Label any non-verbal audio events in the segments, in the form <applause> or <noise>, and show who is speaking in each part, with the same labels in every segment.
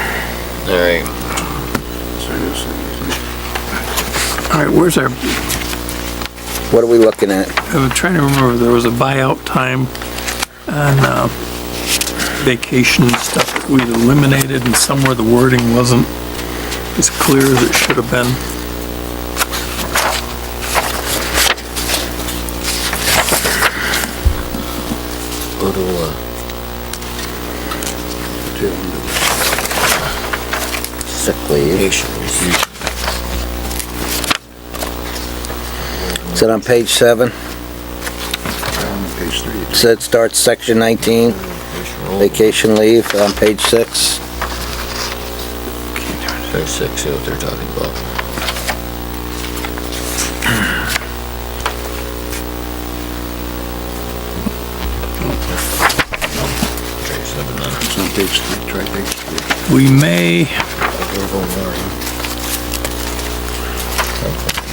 Speaker 1: All right.
Speaker 2: All right, where's our,
Speaker 1: What are we looking at?
Speaker 2: I'm trying to remember, there was a buyout time on uh, vacation and stuff that we eliminated and somewhere the wording wasn't as clear as it should have been.
Speaker 1: Go to, uh, sick leave. Is it on page seven?
Speaker 3: Page three.
Speaker 1: So it starts section 19, vacation leave uh, on page six.
Speaker 3: Page six, see what they're talking about. Page seven, then. It's on page three, try page three.
Speaker 2: We may,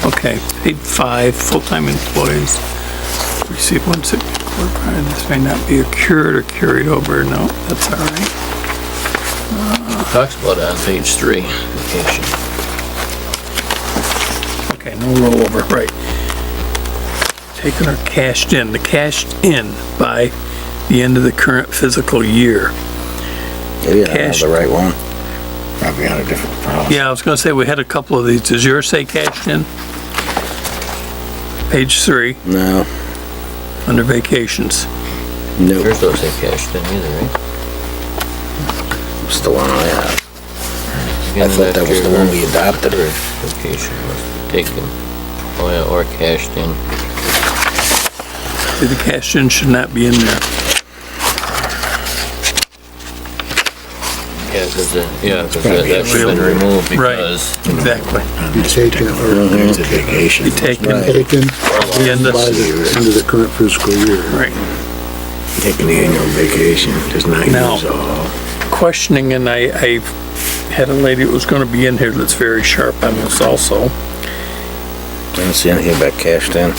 Speaker 2: okay, paid five, full-time employees receive one sick leave or prior. This may not be accrued or carried over. No, that's all right.
Speaker 3: Talks about it on page three, vacation.
Speaker 2: Okay, no rollover, right. Taken or cashed in, the cashed in by the end of the current fiscal year.
Speaker 1: Maybe I don't have
Speaker 2: Cash.
Speaker 1: the right one.
Speaker 3: Probably on a different problem.
Speaker 2: Yeah, I was gonna say, we had a couple of these. Does yours say cashed in? Page three,
Speaker 1: No,
Speaker 2: under vacations.
Speaker 1: no,
Speaker 3: Yours doesn't say cash then either, right?
Speaker 1: it's the one I have. I thought that was the one we adopted.
Speaker 3: Vacation was taken, oh yeah, or cashed in.
Speaker 2: See, The cashed in should not be in there.
Speaker 3: Yeah, because, yeah, 'cause that that should've been removed
Speaker 2: Right.
Speaker 3: because
Speaker 2: Exactly.
Speaker 4: be taken or
Speaker 5: Mm-hmm.
Speaker 1: Mhm.
Speaker 2: Be taken
Speaker 1: Right.
Speaker 2: by
Speaker 4: taken
Speaker 2: the end of,
Speaker 4: by the end of the current fiscal year.
Speaker 2: right.
Speaker 5: Taking the annual vacation does not
Speaker 2: Now-
Speaker 5: use all.
Speaker 2: Questioning, and I, I had a lady that was gonna be in here that's very sharp on this also.
Speaker 1: I don't see anything about cashed in.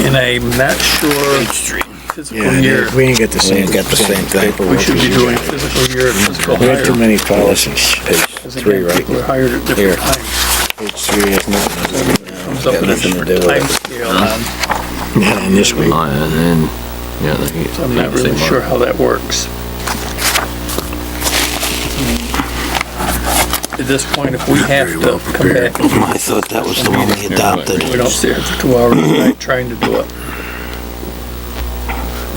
Speaker 2: And I'm not sure physical year.
Speaker 5: We ain't got the
Speaker 1: We
Speaker 5: same.
Speaker 1: ain't got the same thing.
Speaker 5: paperwork
Speaker 2: We should
Speaker 5: as
Speaker 2: be
Speaker 5: you
Speaker 2: doing
Speaker 5: got.
Speaker 2: physical year and physical
Speaker 5: We have too
Speaker 2: hire.
Speaker 5: many policies.
Speaker 2: Because
Speaker 1: three,
Speaker 2: again,
Speaker 1: right?
Speaker 2: people are hired at
Speaker 1: Here.
Speaker 2: different times.
Speaker 5: Page three has nothing to do with it.
Speaker 2: Comes up
Speaker 1: Got
Speaker 2: in a
Speaker 1: nothing to
Speaker 2: different
Speaker 1: do with
Speaker 2: time
Speaker 1: it.
Speaker 2: scale, um,
Speaker 5: Not on this week.
Speaker 3: Oh, yeah, and then, yeah. the-
Speaker 2: so I'm not really
Speaker 3: same
Speaker 2: sure
Speaker 3: one.
Speaker 2: how that works. At this point, if we have to come back
Speaker 5: <laughs> I thought that was the one we adopted.
Speaker 2: We don't sit here for two hours a night trying to do it,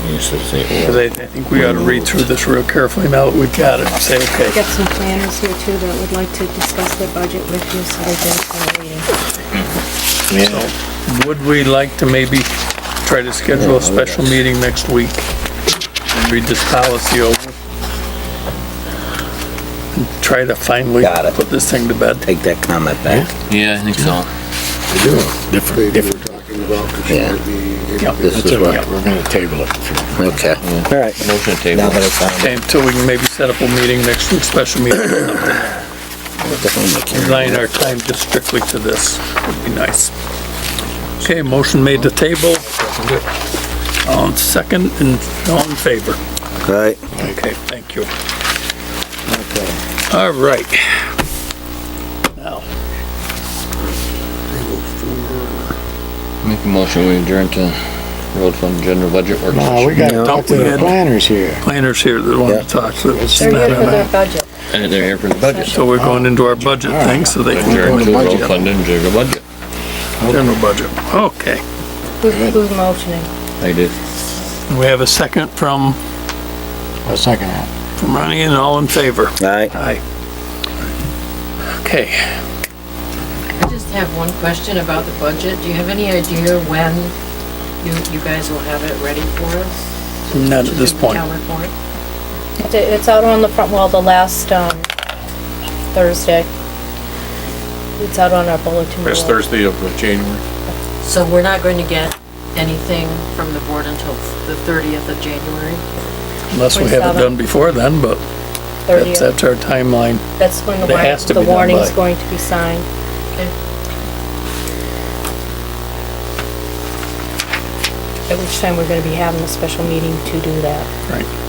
Speaker 3: You should say, oh.
Speaker 2: because
Speaker 3: well,
Speaker 2: I, I think we ought to read through this real carefully now that we've got it, and say, okay,
Speaker 6: Got some planners here too that would like to discuss their budget with you, so they did for a meeting.
Speaker 5: Yeah,
Speaker 2: would we like to maybe try to schedule a special meeting next week? And read this policy over? And Try to finally
Speaker 1: Got it.
Speaker 2: put this thing to bed.
Speaker 1: Take that comment back.
Speaker 3: yeah, I think
Speaker 4: I
Speaker 3: so.
Speaker 4: do. Different, different. Talking about, because
Speaker 1: Yeah.
Speaker 4: it would be.
Speaker 1: This
Speaker 5: that's
Speaker 1: is
Speaker 5: all
Speaker 1: what,
Speaker 5: right. We're gonna table it. for-
Speaker 1: okay. All right.
Speaker 3: Motion to
Speaker 1: Now
Speaker 3: table.
Speaker 1: that I found it,
Speaker 2: Okay, until we can maybe set up a meeting next week, special meeting,
Speaker 1: definitely
Speaker 2: design our time just strictly to this, would be nice. Okay, motion made to table. All in second and all in favor.
Speaker 1: Right.
Speaker 2: Okay, thank you. All right. Now,
Speaker 3: Make a motion, we adjourn to road fund general budget work
Speaker 5: No, Uh, we
Speaker 3: session.
Speaker 5: gotta talk to the planners here.
Speaker 2: planners here that want
Speaker 1: Yeah.
Speaker 2: to talk, so it's
Speaker 6: They're
Speaker 2: not
Speaker 6: here for
Speaker 2: on
Speaker 6: their
Speaker 2: that.
Speaker 6: budget.
Speaker 3: And they're here for the budget.
Speaker 2: So we're going into our budget thing, so they can,
Speaker 3: Adjourn to
Speaker 4: Budget.
Speaker 3: road fund and general budget.
Speaker 2: general budget. Okay,
Speaker 6: Who- Who's motioning?
Speaker 3: I did.
Speaker 2: we have a second from,
Speaker 5: A second half.
Speaker 2: from Ronnie, and all in favor?
Speaker 1: All right.
Speaker 2: Aye. Okay,
Speaker 7: I just have one question about the budget. Do you have any idea when you, you guys will have it ready for us?
Speaker 2: not at this point.
Speaker 7: Town report?
Speaker 6: It's- It's out on the front wall, the last, um, Thursday. It's out on our bulletin board.
Speaker 8: Last Thursday of January.
Speaker 7: So we're not going to get anything from the board until the thirtieth of January?
Speaker 2: Unless we have it done before then, but that's,
Speaker 6: 30th.
Speaker 2: that's our timeline.
Speaker 6: That's when the
Speaker 2: That has
Speaker 6: warrant,
Speaker 2: to
Speaker 6: the
Speaker 2: be done
Speaker 6: warning's
Speaker 2: by.
Speaker 6: going to be signed.
Speaker 7: Okay.
Speaker 6: At which time we're gonna be having a special meeting to do that.
Speaker 2: Right.